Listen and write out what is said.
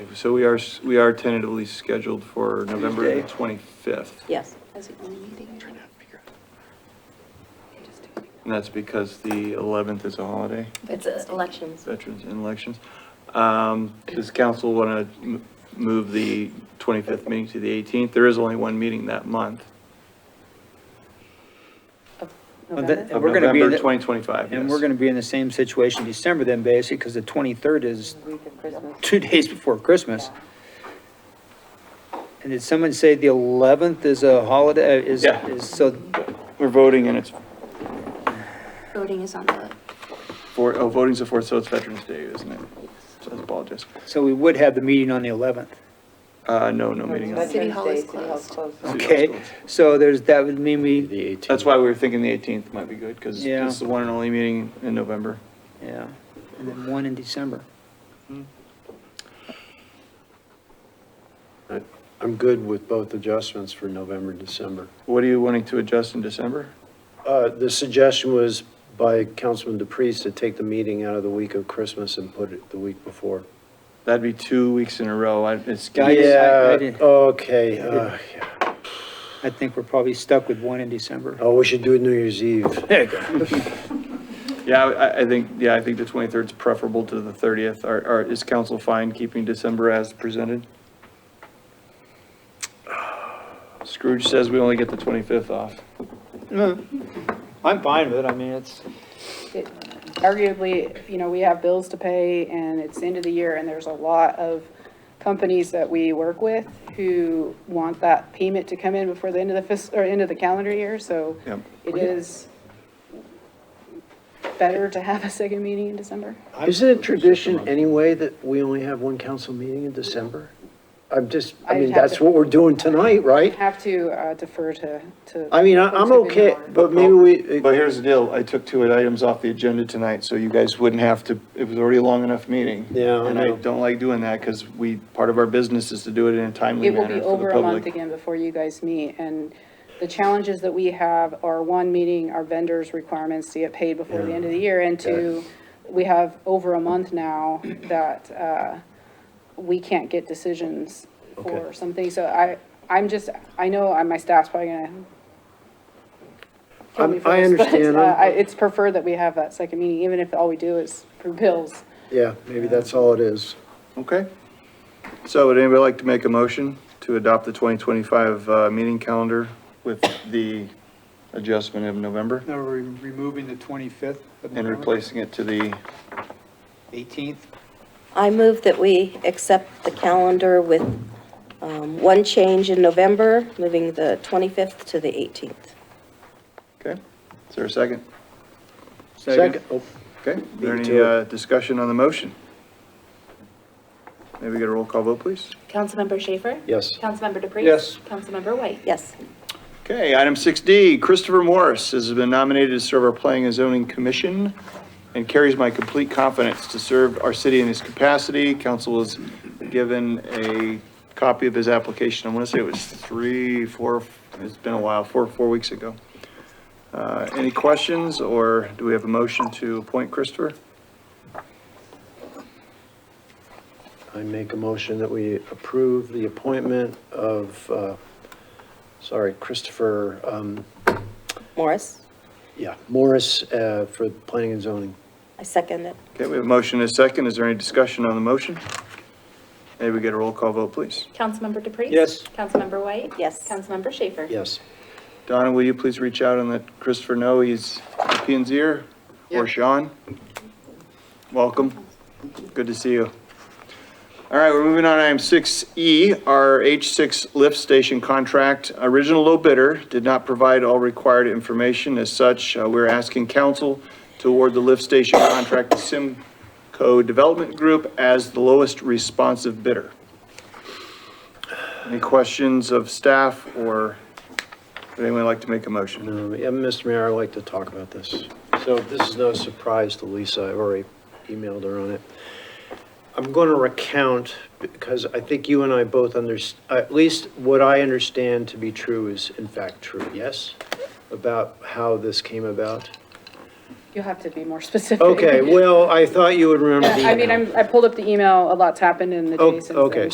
So we are, s- we are tentatively scheduled for November Tuesday. 25th. Yes. That's the only meeting. I just don't- And that's because the 11th is a holiday, It's uh, elections. Veterans and Elections. Um, Does council want to move the 25th meeting to the 18th? There is only one meeting that month. of And November? that- And we're gonna be in November the- 2025, And yes. we're going to be in the same situation December then, basically, because the 23rd is Week of Christmas. two days before Christmas. And did someone say the 11th is a holiday, uh, is, Yeah. is, so, We're voting and it's, Voting is on the, four, oh, voting's the 4th, so it's Veterans Day, isn't it? So I apologize. so we would have the meeting on the 11th. Uh, no, no meeting. on- City Hall is Okay, so there's, that would mean we, The 18th. That's why we were thinking the 18th might be good, because Yeah. it's the one and only meeting in November. yeah, and then one in December. I- I'm good with both adjustments for November, December. What are you wanting to adjust in December? Uh, The suggestion was by Councilman DePreez to take the meeting out of the week of Christmas and put it the week before. That'd be two weeks in a row. I- It's, I just- I- I Yeah, didn't- okay. uh, yeah. I think we're probably stuck with one in December. Oh, we should do it New Year's Eve. There you go. yeah, I, I think, yeah, I think the 23rd is preferable to the 30th. Are, are, is council fine keeping December as presented? Scrooge says we only get the 25th off. I'm fine with it, I mean, it's, it- arguably, you know, we have bills to pay and it's the end of the year and there's a lot of companies that we work with who want that payment to come in before the end of the fiscal, or end of the calendar year, so Yep. it is better to have a second meeting in December. Isn't it tradition anyway that we only have one council meeting in December? I'm just, I I'd mean, have that's to- what we're doing tonight, right? Have to uh, defer to, to. I mean, I- I'm folks who've okay, been on. but maybe we. But here's the deal, I took two items off the agenda tonight, so you guys wouldn't have to, it was already a long enough meeting. Yeah, I And I know. don't like doing that, because we, part of our business is to do it in a timely It manner for the will be public. over a month again before you guys meet, and the challenges that we have are, one, meeting our vendors' requirements to get paid before the end of the year, and two, we have over a month now that uh, we can't get decisions for Okay. something, so I, I'm just, I know I- my staff's probably gonna kill me I'm- for I this, but understand. uh, I'm- I- it's preferred that we have that second meeting, even if all we do is for bills. Yeah, maybe that's all it is. Okay. So would anybody like to make a motion to adopt the 2025 uh, meeting calendar with the adjustment of November now we're removing the 25th. and replacing it to the, 18th. I move that we accept the calendar with um, one change in November, moving the 25th to the 18th. okay? Is there a second? Second, oh, Okay, is there Me any too. uh, discussion on the motion? Maybe get a roll call vote, please? Councilmember Schaefer? yes. Councilmember DePreez? Yes. Councilmember White? Yes. Okay, item 6D, Christopher Morris has been nominated to serve our Planning and Zoning Commission and carries my complete confidence to serve our city in his capacity. Council was given a copy of his application, I want to say it was three, four, it's been a while, four, four weeks ago. Uh, Any questions, or do we have a motion to appoint Christopher? I make a motion that we approve the appointment of, uh, sorry, Christopher, um, Morris? yeah, Morris uh, for planning and zoning. I second it. Okay, we have a motion and a second, is there any discussion on the motion? Maybe we get a roll call vote, please. Councilmember DePreez? Yes. Councilmember White? Yes. Councilmember Schaefer? Yes. Donna, will you please reach out and let Christopher know he's p and Z-er? Or Sean? Welcome. Good to see you. All right, we're moving on to item 6E, our H6 lift station contract. Original low bidder did not provide all required information. As such, uh, we're asking council to award the lift station contract to Simco Development Group as the lowest responsive bidder. Any questions of staff or would anyone like to make a motion? Um, Yeah, Mr. Mayor, I'd like to talk about this. So this is no surprise to Lisa, I've already emailed her on it. I'm going to recount, because I think you and I both under, at least what I understand to be true is in fact true, yes? About how this came about. You'll have to be more specific. Okay, well, I thought you would remember the I mean, email. I'm, I pulled up the email, a lot's happened in the Oh, day since then. okay,